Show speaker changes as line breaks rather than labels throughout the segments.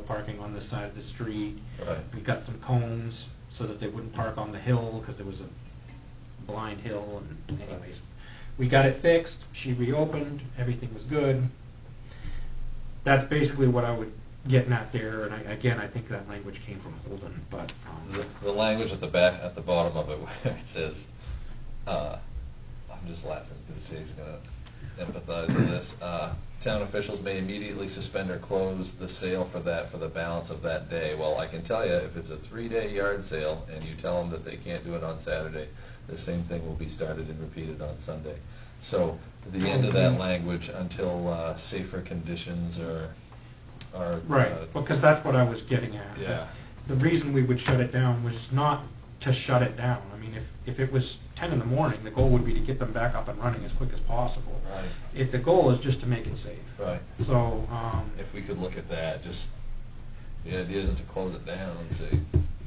parking on this side of the street.
Right.
We got some cones so that they wouldn't park on the hill, because there was a blind hill, and anyways. We got it fixed, she reopened, everything was good. That's basically what I would getting at there, and I, again, I think that language came from Holden, but, um,
The, the language at the back, at the bottom of it where it says, uh, I'm just laughing because Jay's gonna empathize with this. Uh, town officials may immediately suspend or close the sale for that for the balance of that day. Well, I can tell you, if it's a three-day yard sale and you tell them that they can't do it on Saturday, the same thing will be started and repeated on Sunday. So, the end of that language until, uh, safer conditions are, are.
right,
uh,
because that's what I was getting at.
Yeah.
The reason we would shut it down was not to shut it down. I mean, if, if it was ten in the morning, the goal would be to get them back up and running as quick as possible.
Right.
If, the goal is just to make it safe.
Right.
So, um,
if we could look at that, just, the idea isn't to close it down and say,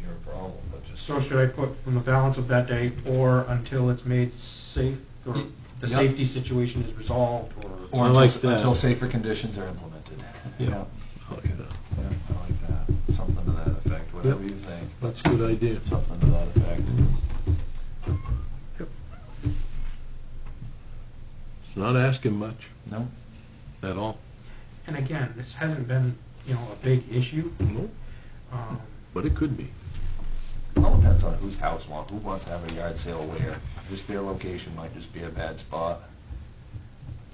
you're a problem, but just.
so should I put from the balance of that day or until it's made safe, or
Y-
the
yep.
safety situation is resolved, or?
I like that.
Until safer conditions are implemented.
Yeah.
Okay. Yeah, I like that, something to that effect, whatever
Yep.
you think,
That's a good idea.
something to that effect.
It's not asking much
No?
at all.
And again, this hasn't been, you know, a big issue.
No.
Um,
But it could be.
All depends on whose house want, who wants to have a yard sale where, just their location might just be a bad spot.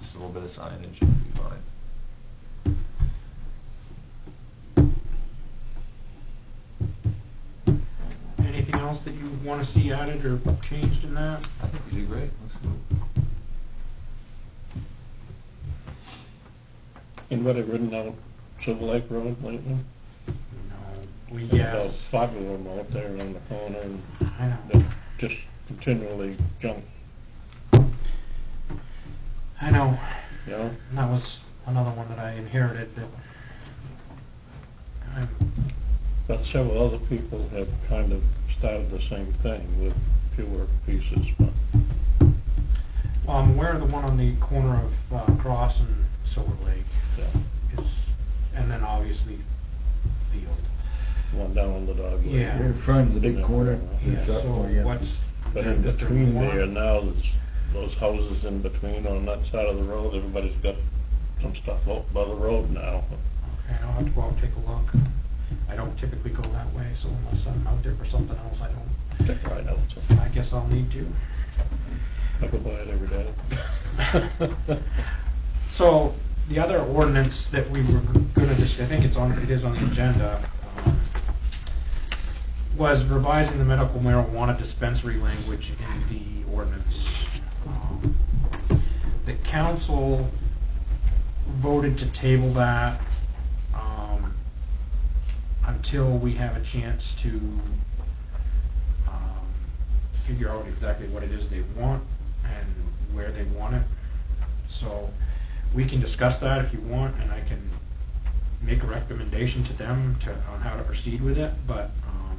Just a little bit of signage would be fine.
Anything else that you want to see added or changed in that?
I think you did great, looks good.
And what I've written down, Silver Lake Road lately.
No. We,
there's About
yes,
five of them out there on the corner and
I know.
they're just continually junk,
I know,
you know?
and that was another one that I inherited that I'm,
But several other people have kind of started the same thing with fewer pieces, but
well, I'm aware of the one on the corner of uh, Cross and Silver Lake
yeah,
is, and then obviously Field.
one down on the dog. leg.
Yeah.
In front of the big corner.
Yeah,
there's
so
that one, yeah.
what's.
oh, But
there-
in
is there
between
more?
there now, there's those houses in between on that side of the road, everybody's got some stuff out by the road now.
Okay, I'll have to go out and take a look. I don't typically go that way, so unless I'm out there for something else, I don't,
Check right out, so
I guess I'll need to.
I go by it every day.
So the other ordinance that we were gonna, dis- I think it's on, it is on the agenda, um, was revising the medical marijuana dispensary language in the ordinance. Um, The council voted to table that um, until we have a chance to um, figure out exactly what it is they want and where they want it. So we can discuss that if you want, and I can make a recommendation to them to, on how to proceed with it, but, um,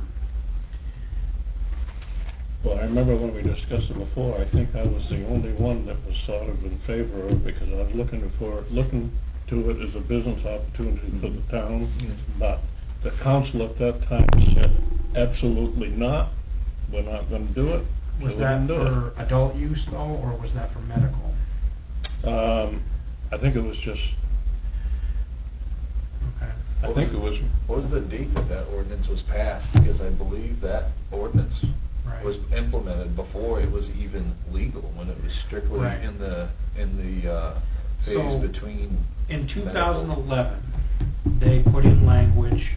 Well, I remember when we discussed it before, I think I was the only one that was sort of in favor of, it because I was looking for, looking to it as a business opportunity for the town,
Mm-hmm.
but the council at that time said, absolutely not, we're not gonna do it. so
was
we
that
didn't do it."
for adult use though, or was that for medical?
Um, I think it was just,
Okay.
I think it was,
What was the date that that ordinance was passed? Because I believe that ordinance
Right.
was implemented before it was even legal, when it was strictly
Right.
in the, in the uh, phase
So-
between.
In
medical-
2011, they put in language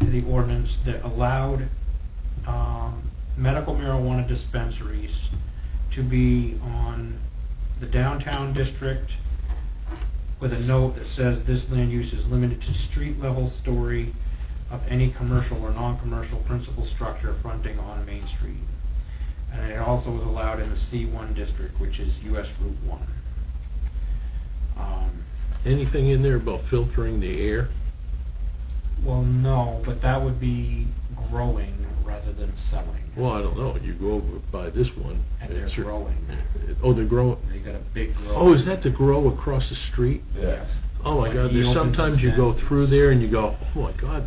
to the ordinance that allowed um, medical marijuana dispensaries to be on the downtown district with a note that says this land use is limited to street level story of any commercial or non-commercial principal structure fronting on Main Street. And it also was allowed in the C1 district, which is US Route 1. Um,
Anything in there about filtering the air?
Well, no, but that would be growing rather than selling.
Well, I don't know. You go over by this one.
And they're
it's-
growing.
Oh, they're growing.
They got a big grow.
Oh, is that the grow across the street?
Yeah.
Yes.
Oh my
Like,
God,
he
there's
opens his
sometimes you go
vents.
through there and you go, oh my God,